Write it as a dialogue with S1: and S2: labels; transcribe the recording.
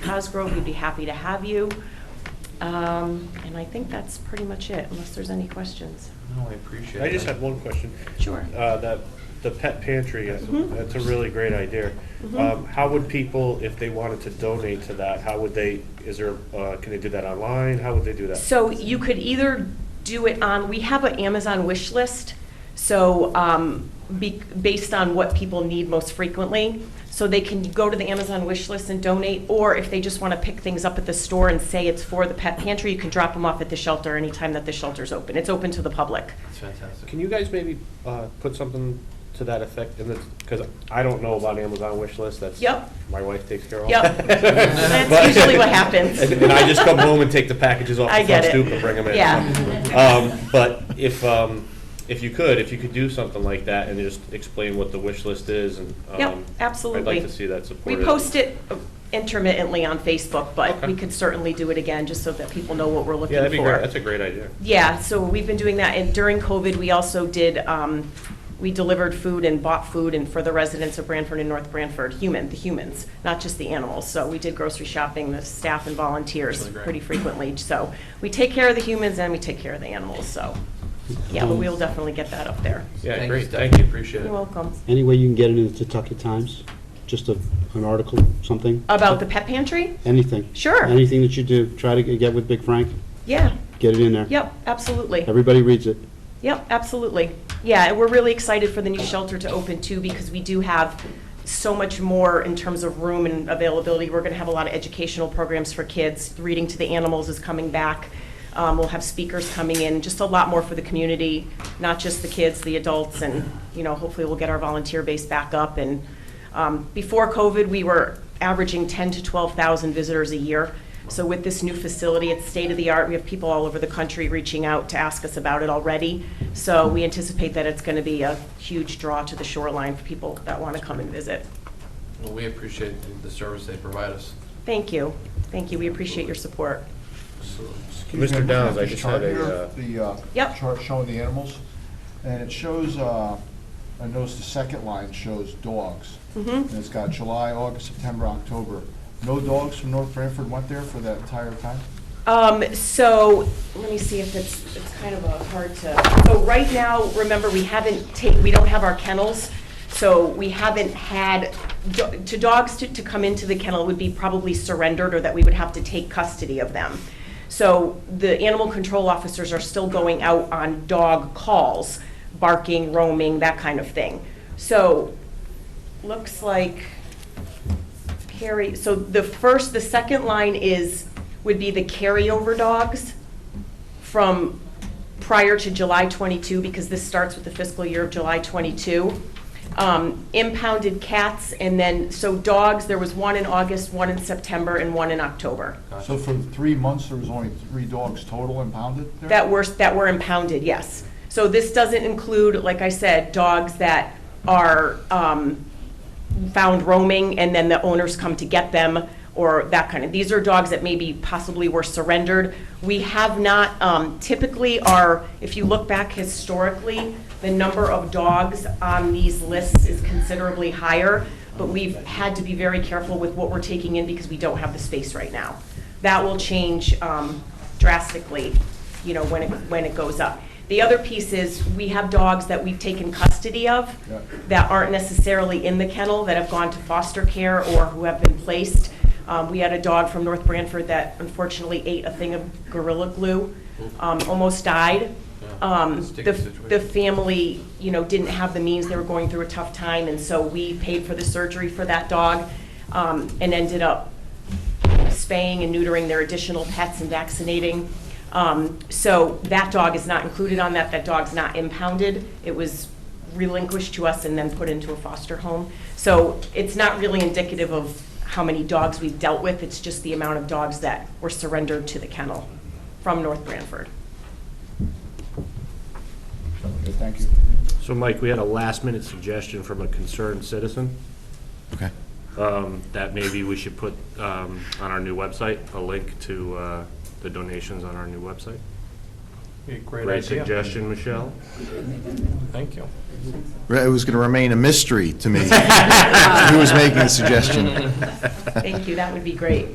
S1: Cosgrove, we'd be happy to have you. Um, And I think that's pretty much it, unless there's any questions.
S2: No, I appreciate it.
S3: I just had one question.
S1: Sure.
S3: Uh, That, the pet pantry, that's-
S1: Mhm.
S3: that's a really great idea.
S1: Mhm.
S3: Um, How would people, if they wanted to donate to that, how would they, is there, uh, can they do that online? How would they do that?
S1: So you could either do it on, we have an Amazon wish list, so, um, be, based on what people need most frequently. So they can go to the Amazon wish list and donate, or if they just want to pick things up at the store and say it's for the pet pantry, you can drop them off at the shelter anytime that the shelter's open. It's open to the public.
S2: That's fantastic.
S3: Can you guys maybe uh, put something to that effect in the, because I don't know about Amazon wish list, that's.
S1: Yep.
S3: My wife takes care of.
S1: Yep.
S3: But-
S1: That's usually what happens.
S3: And and I just come home and take the packages off
S1: I
S3: the
S1: get
S3: front
S1: it.
S3: stoop and bring them in.
S1: Yeah.
S3: Um, But if, um, if you could, if you could do something like that and just explain what the wish list is and.
S1: Yep,
S3: um,
S1: absolutely.
S3: I'd like to see that
S1: We
S3: supported.
S1: post it intermittently on Facebook, but we
S3: Okay.
S1: could certainly do it again, just so that people know what we're looking for.
S3: Yeah, that'd be great, that's a great idea.
S1: Yeah, so we've been doing that, and during COVID, we also did, um, we delivered food and bought food, and for the residents of Branford and North Branford, human, the humans, not just the animals. So we did grocery shopping, the staff and volunteers
S2: Really great.
S1: pretty frequently. So we take care of the humans and we take care of the animals, so, yeah, but we'll definitely get that up there.
S3: Yeah,
S2: Thank
S3: great,
S2: you,
S3: thank you.
S2: Appreciate it.
S1: You're welcome.
S4: Any way you can get it in the Tucket Times? Just a, an article, something?
S1: About the pet pantry?
S4: Anything.
S1: Sure.
S4: Anything that you do, try to get with Big Frank,
S1: Yeah,
S4: get it in there.
S1: yep, absolutely.
S4: Everybody reads it.
S1: Yep, absolutely. Yeah, and we're really excited for the new shelter to open too, because we do have so much more in terms of room and availability. We're going to have a lot of educational programs for kids. Reading to the Animals is coming back. Um, We'll have speakers coming in, just a lot more for the community, not just the kids, the adults, and, you know, hopefully we'll get our volunteer base back up. And um, before COVID, we were averaging 10 to 12,000 visitors a year. So with this new facility, it's state-of-the-art, we have people all over the country reaching out to ask us about it already. So we anticipate that it's going to be a huge draw to the shoreline for people that want to come and visit.
S2: Well, we appreciate the- the service they provide us.
S1: Thank you, thank you, we appreciate your support.
S5: Excuse
S3: Mr.
S5: me, I'm looking at
S3: Downs, I
S5: this
S3: just had
S5: chart here,
S3: a, uh,
S5: The uh,
S1: Yep.
S5: chart showing the animals, and it shows, uh, I noticed the second line shows dogs.
S1: Mhm.
S5: And it's got July, August, September, October. No dogs from North Branford went there for that entire time?
S1: Um, so, let me see if it's, it's kind of a hard to, so right now, remember, we haven't ta, we don't have our kennels, so we haven't had, do- to dogs to, to come into the kennel would be probably surrendered, or that we would have to take custody of them. So, the animal control officers are still going out on dog calls, barking, roaming, that kind of thing. So, looks like carry, so the first, the second line is, would be the carryover dogs from prior to July 22, because this starts with the fiscal year of July 22. Um, Impounded cats, and then, so dogs, there was one in August, one in September, and one in October.
S5: So for three months, there was only three dogs total impounded there?
S1: That were, that were impounded, yes. So this doesn't include, like I said, dogs that are um, found roaming and then the owners come to get them or that kind of, these are dogs that maybe possibly were surrendered. We have not, um, typically are, if you look back historically, the number of dogs on these lists is considerably higher, but we've had to be very careful with what we're taking in because we don't have the space right now. That will change um, drastically you know, when it, when it goes up. The other piece is, we have dogs that we've taken custody of
S5: Yeah.
S1: that aren't necessarily in the kennel, that have gone to foster care or who have been placed. Um, We had a dog from North Branford that unfortunately ate a thing of Gorilla Glue, um, almost died.
S2: Yeah,
S1: Um,
S2: sticky
S1: The the
S2: situation.
S1: family, you know, didn't have the means, they were going through a tough time, and so we paid for the surgery for that dog um, and ended up spaying and neutering their additional pets and vaccinating. Um, So that dog is not included on that, that dog's not impounded. It was relinquished to us and then put into a foster home. So it's not really indicative of how many dogs we've dealt with, it's just the amount of dogs that were surrendered to the kennel from North Branford.
S5: Okay, Thank you.
S3: so Mike, we had a last minute suggestion from a concerned citizen.
S6: Okay.
S3: um, that maybe we should put um, on our new website, a link to uh, the donations on our new website.
S2: Be a
S3: Great suggestion, Michelle.
S2: Thank you.
S6: It was going to remain a mystery to me who was making the suggestion.
S1: Thank you, that would be great.